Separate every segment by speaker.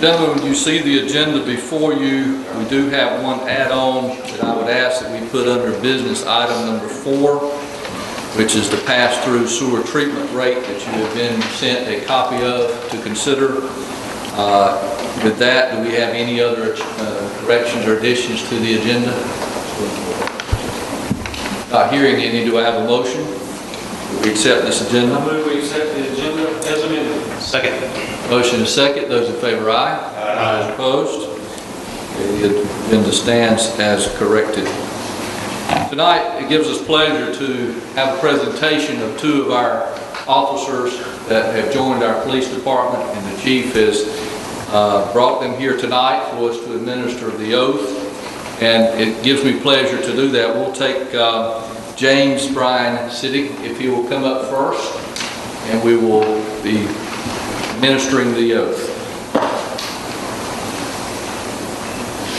Speaker 1: Gentlemen, you see the agenda before you. We do have one add-on that I would ask that we put under business item number four, which is the pass-through sewer treatment rate that you have been sent a copy of to consider. Uh, With that, do we have any other uh, corrections or additions to the agenda? Not hearing any, do I have a motion? We accept this agenda?
Speaker 2: I move we accept the agenda as amended.
Speaker 3: Second.
Speaker 1: Motion is second, those in favor, aye. Aye. Opposed? Okay, The agenda stands as corrected. Tonight, it gives us pleasure to have a presentation of two of our officers that have joined our police department, and the chief has uh, brought them here tonight for us to administer the oath, and it gives me pleasure to do that. We'll take uh, James Bryan Siddick, if he will come up first, and we will be administering the oath.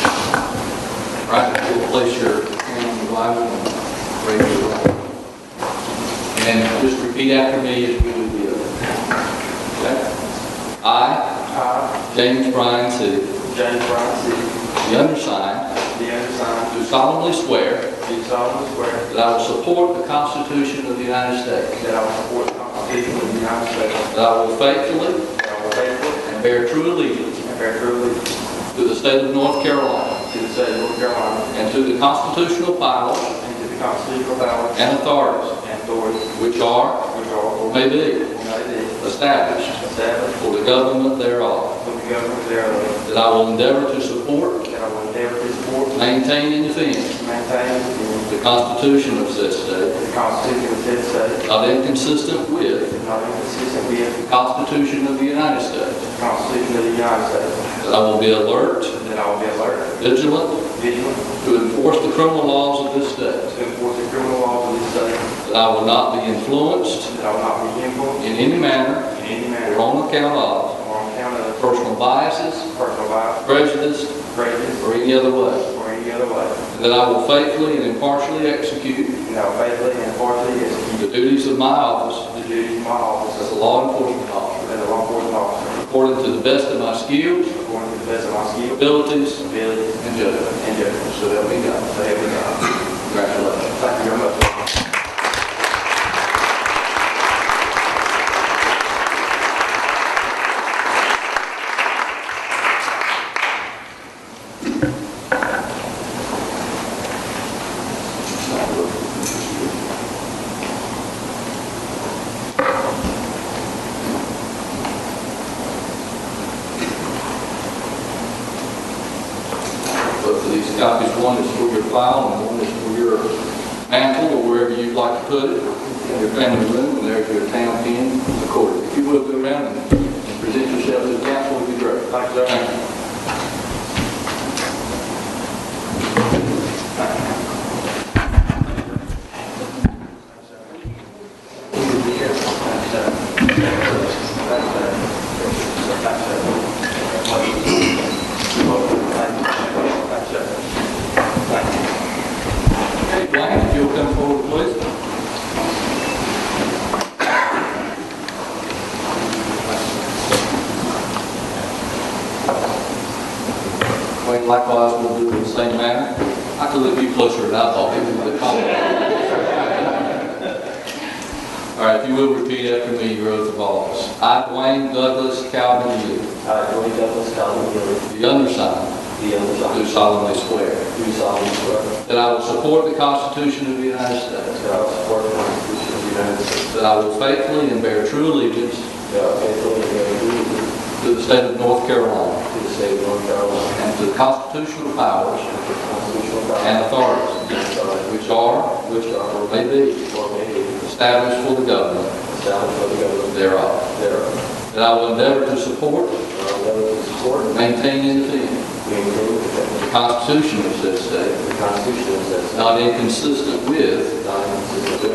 Speaker 1: All right, if you'll place your hand on the Bible and raise your right. And just repeat after me as we do the oath. Okay? I,
Speaker 4: I,
Speaker 1: James Bryan City,
Speaker 4: James Brown City,
Speaker 1: the undersigned,
Speaker 4: the undersigned,
Speaker 1: do solemnly swear
Speaker 4: do solemnly swear
Speaker 1: that I will support the Constitution of the United States,
Speaker 4: that I will support the Constitution of the United States,
Speaker 1: that I will faithfully
Speaker 4: that I will faithfully
Speaker 1: and bear true allegiance
Speaker 4: and bear true allegiance
Speaker 1: to the state of North Carolina
Speaker 4: to the state of North Carolina
Speaker 1: and to the constitutional powers
Speaker 4: and to the constitutional powers
Speaker 1: and authorities
Speaker 4: and authorities
Speaker 1: Which are,
Speaker 4: which are
Speaker 1: or
Speaker 4: or
Speaker 1: may be,
Speaker 4: may be
Speaker 1: established
Speaker 4: established
Speaker 1: for the government thereof.
Speaker 4: for the government thereof,
Speaker 1: That I will endeavor to support,
Speaker 4: that I will endeavor to support,
Speaker 1: maintain, and defend
Speaker 4: maintain, and
Speaker 1: the Constitution of said state,
Speaker 4: defend the Constitution of said state,
Speaker 1: not inconsistent with
Speaker 4: and not inconsistent with
Speaker 1: the Constitution of the United
Speaker 4: the
Speaker 1: States.
Speaker 4: Constitution of the United States,
Speaker 1: That I will be alert,
Speaker 4: and that I will be alert,
Speaker 1: vigilant,
Speaker 4: vigilant,
Speaker 1: to enforce the criminal laws of this state.
Speaker 4: to enforce the criminal laws of this state,
Speaker 1: That I will not be influenced
Speaker 4: That I will not be influenced
Speaker 1: in any manner
Speaker 4: in any
Speaker 1: or
Speaker 4: manner or
Speaker 1: on account of
Speaker 4: on account of
Speaker 1: personal biases,
Speaker 4: personal life,
Speaker 1: prejudice,
Speaker 4: prejudice,
Speaker 1: or any other way.
Speaker 4: or any other way.
Speaker 1: That I will faithfully and impartially execute
Speaker 4: And I will faithfully and impartially
Speaker 1: the
Speaker 4: execute
Speaker 1: duties of my office
Speaker 4: the duties of my office
Speaker 1: As a law enforcement officer,
Speaker 4: as a law enforcement officer
Speaker 1: according to the best of my skills,
Speaker 4: according to the best of my skill,
Speaker 1: abilities,
Speaker 4: ability,
Speaker 1: and judgment.
Speaker 4: and judgment.
Speaker 1: So help me God.
Speaker 4: So help me God.
Speaker 1: Congratulations.
Speaker 4: Thank you very much.
Speaker 1: Both of these copies, one is for your file and one is for your mantle or wherever you'd like to put it. In your family room, and there's your town pin recorded. If you will, go around and present yourself to the council, it'd be great.
Speaker 4: Thank you, sir.
Speaker 1: Thank you. Hey, Blaine, if you'll come forward, please. Blaine, likewise, will do in the same manner. I could look you closer than I thought, even with the compliment. All right, if you will repeat after me your oath of office. I, Dwayne Douglas Calvin Yu,
Speaker 5: I, Roy Douglas, Calvin Miller,
Speaker 1: the undersigned,
Speaker 5: the undersigned,
Speaker 1: do solemnly swear
Speaker 5: do solemnly swear
Speaker 1: that I will support the Constitution of the United States.
Speaker 5: that I will support the Constitution of the United States,
Speaker 1: That I will faithfully and bear true allegiance
Speaker 5: that I will faithfully and bear true allegiance
Speaker 1: to the state of North Carolina
Speaker 5: to the state of North Carolina
Speaker 1: and to the constitutional powers
Speaker 5: and to the constitutional
Speaker 1: and
Speaker 5: powers
Speaker 1: authorities
Speaker 5: and authorities
Speaker 1: which are,
Speaker 5: which are
Speaker 1: or may be,
Speaker 5: or may be
Speaker 1: established for the government
Speaker 5: established by the government
Speaker 1: thereof.
Speaker 5: thereof.
Speaker 1: That I will endeavor to support,
Speaker 5: And I will never uh, support,
Speaker 1: maintain, and defend
Speaker 5: maintain, and defend
Speaker 1: the Constitution of said state,
Speaker 5: the Constitution as
Speaker 1: not inconsistent with
Speaker 5: not consistent with